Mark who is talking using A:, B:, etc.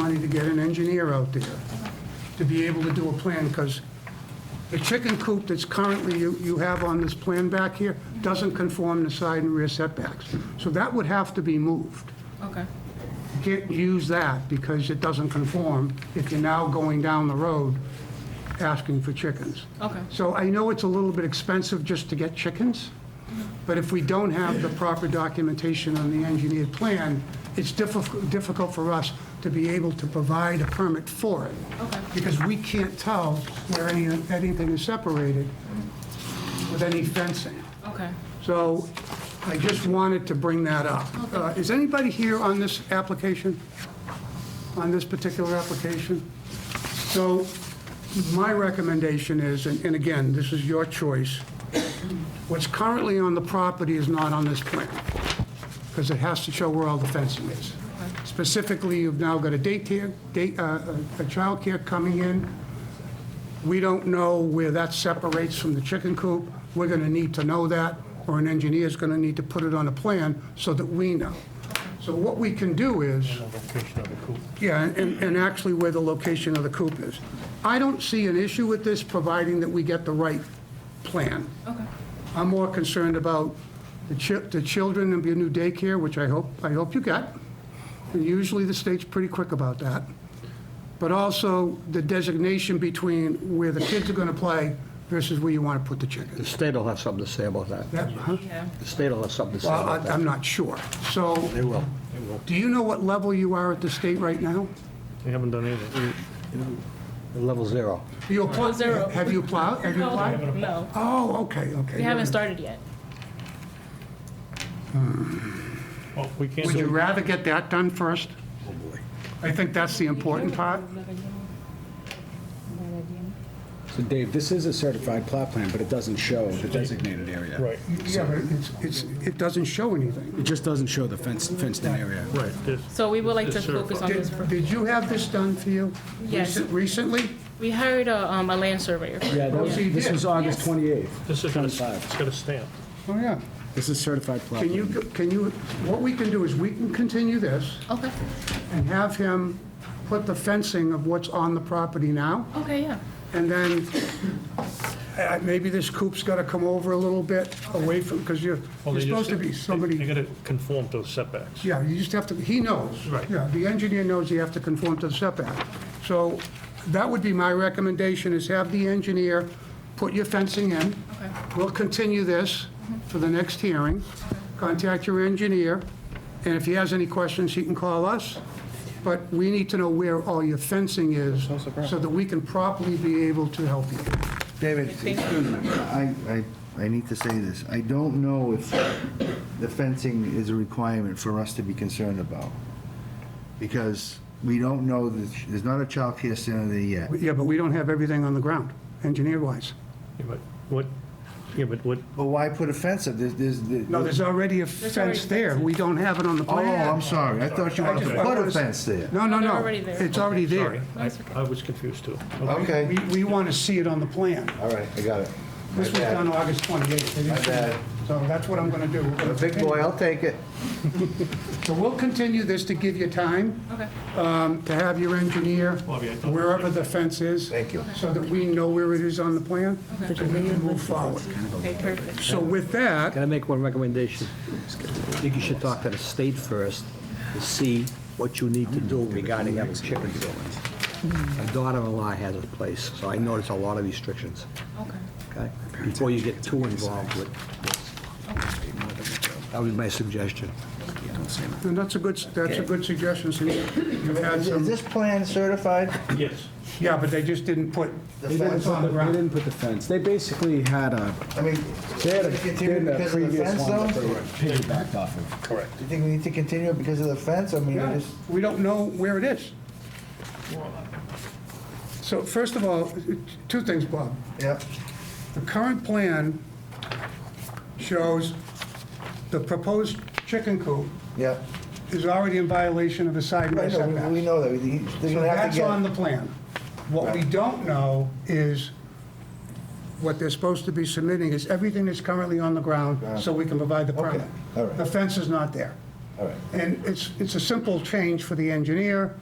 A: get an engineer out there to be able to do a plan, because the chicken coop that's currently you, you have on this plan back here doesn't conform to side and rear setbacks. So that would have to be moved.
B: Okay.
A: You Can't use that because it doesn't conform if you're now going down the road asking for chickens.
B: Okay.
A: So I know it's a little bit expensive just to get chickens, but if we don't have the proper documentation on the engineered plan, it's difficult, difficult for us to be able to provide a permit for it.
B: Okay.
A: Because we can't tell where any, anything is separated with any fencing.
B: Okay.
A: So I just wanted to bring that up. Uh, Is anybody here on this application? On this particular application? So my recommendation is, and and again, this is your choice, what's currently on the property is not on this plan, because it has to show where all the fencing is. Specifically, you've now got a daycare, day, uh, a childcare coming in. We don't know where that separates from the chicken coop. We're going to need to know that, or an engineer's going to need to put it on a plan so that we know. So what we can do is,
C: location of the coop.
A: yeah, and, and actually where the location of the coop is. I don't see an issue with this, providing that we get the right plan.
B: Okay.
A: I'm more concerned about the chi, the children and your new daycare, which I hope, I hope you get. And usually the state's pretty quick about that. But also the designation between where the kids are gonna play versus where you wanna put the
D: The
A: chickens.
D: state will have something to say about that.
A: That, huh?
B: Yeah.
D: The state will have something to say
A: Well, I,
D: about that.
A: I'm not sure. So,
D: They will.
A: do you know what level you are at the state right now?
C: They haven't done anything.
D: Level zero.
A: You applied,
B: Zero.
A: have you applied, have you applied?
B: No.
A: Oh, okay, okay.
B: We haven't started yet.
C: Well, we can't
A: Would you
C: do,
A: rather get that done first? I think that's the important part.
E: So Dave, this is a certified plot plan, but it doesn't show the designated area.
C: right,
A: Yeah, but it's, it's, it doesn't show anything.
E: It just doesn't show the fenced, fenced-in area.
C: right, this,
B: So we would like to
C: Yes, sir.
B: focus on this.
A: Did, did you have this done for you?
B: Yes.
A: recent- Recently?
B: We hired a, um, a land surveyor.
E: Yeah, that was-
A: Yeah.
E: this was August 28th.
C: this is gonna, it's
E: 25.
C: got a stamp.
A: Oh, yeah.
E: This is certified plot
A: Can you,
E: plan.
A: can you, what we can do is we can continue this
B: Okay.
A: and have him put the fencing of what's on the property now.
B: Okay, yeah.
A: And then, uh, maybe this coop's gotta come over a little bit away from, because you're, you're
C: Well, they just-
A: supposed to be
C: They
A: somebody,
C: gotta conform to the setbacks.
A: yeah, you just have to, he knows.
C: Right.
A: Yeah, the engineer knows you have to conform to the setback. So that would be my recommendation, is have the engineer put your fencing in.
B: Okay.
A: We'll continue this for the next hearing. Contact your engineer, and if he has any questions, he can call us. But we need to know where all your fencing is, so that we can properly be able to help you.
F: David, I, I, I need to say this. I don't know if the fencing is a requirement for us to be concerned about. Because we don't know, that there's not a childcare center there yet.
A: Yeah, but we don't have everything on the ground, engineer-wise.
C: Yeah, But what, yeah, but what,
F: But why put a fence up? There's, there's.
A: No, there's already a
B: There's already
A: fence there. We don't have it on the
F: Oh, I'm
A: plan.
F: sorry. I thought you wanted to put a fence there.
A: No, no,
B: They're
A: no.
B: already there.
A: It's already
C: sorry,
A: there.
C: I, I was confused too.
F: Okay,
A: We, we want to see it on the plan.
F: all right, I got it.
A: This was done August 28th.
F: My bad.
A: So that's what I'm going to do. We're
F: I'm
A: gonna
F: a big boy, I'll take it.
A: So we'll continue this to give you time
B: Okay.
A: um, to have your engineer,
C: Bobby, I thought-
A: wherever the fence is.
F: Thank you.
A: So that we know where it is on the plan, so we can move forward.
B: Okay, perfect.
A: So with that,
D: Can I make one recommendation? I think you should talk to the state first to see what you need to do regarding having chicken buildings. My daughter-in-law has a place, so I notice a lot of restrictions,
B: Okay.
D: okay? Before you get too involved with this. That would be my suggestion.
A: and that's a good, that's a good suggestion, since you've had
F: Is is
A: some,
F: this plan certified?
C: Yes,
A: yeah, but they just didn't put,
F: The
E: They didn't
F: fence
E: put
F: on
E: the-
F: the
E: they
F: ground?
E: didn't put the fence. They basically had a,
F: I mean,
E: they had a,
F: we
E: they
F: continue
E: had a
F: because of the
E: previous
F: fence
E: one that they
F: though?
E: piggybacked off of.
C: correct.
F: Do you think we need to continue it because of the fence? I mean, I
A: yeah,
F: just.
A: we don't know where it is.
C: uh,
A: So first of all, two things, Bob.
F: Yep.
A: The current plan shows the proposed chicken coop
F: Yep.
A: is already in violation of the side
F: I
A: yard
F: know, we- we
A: setback.
F: know that, We- they're
A: So
F: gonna have
A: that's
F: to
A: on
F: get,
A: the plan. What we don't know is, what they're supposed to be submitting is everything that's currently on the ground, so we can provide the permit.
F: Ah. all right.
A: The fence is not there.
F: all right,
A: And it's, it's a simple change for the engineer,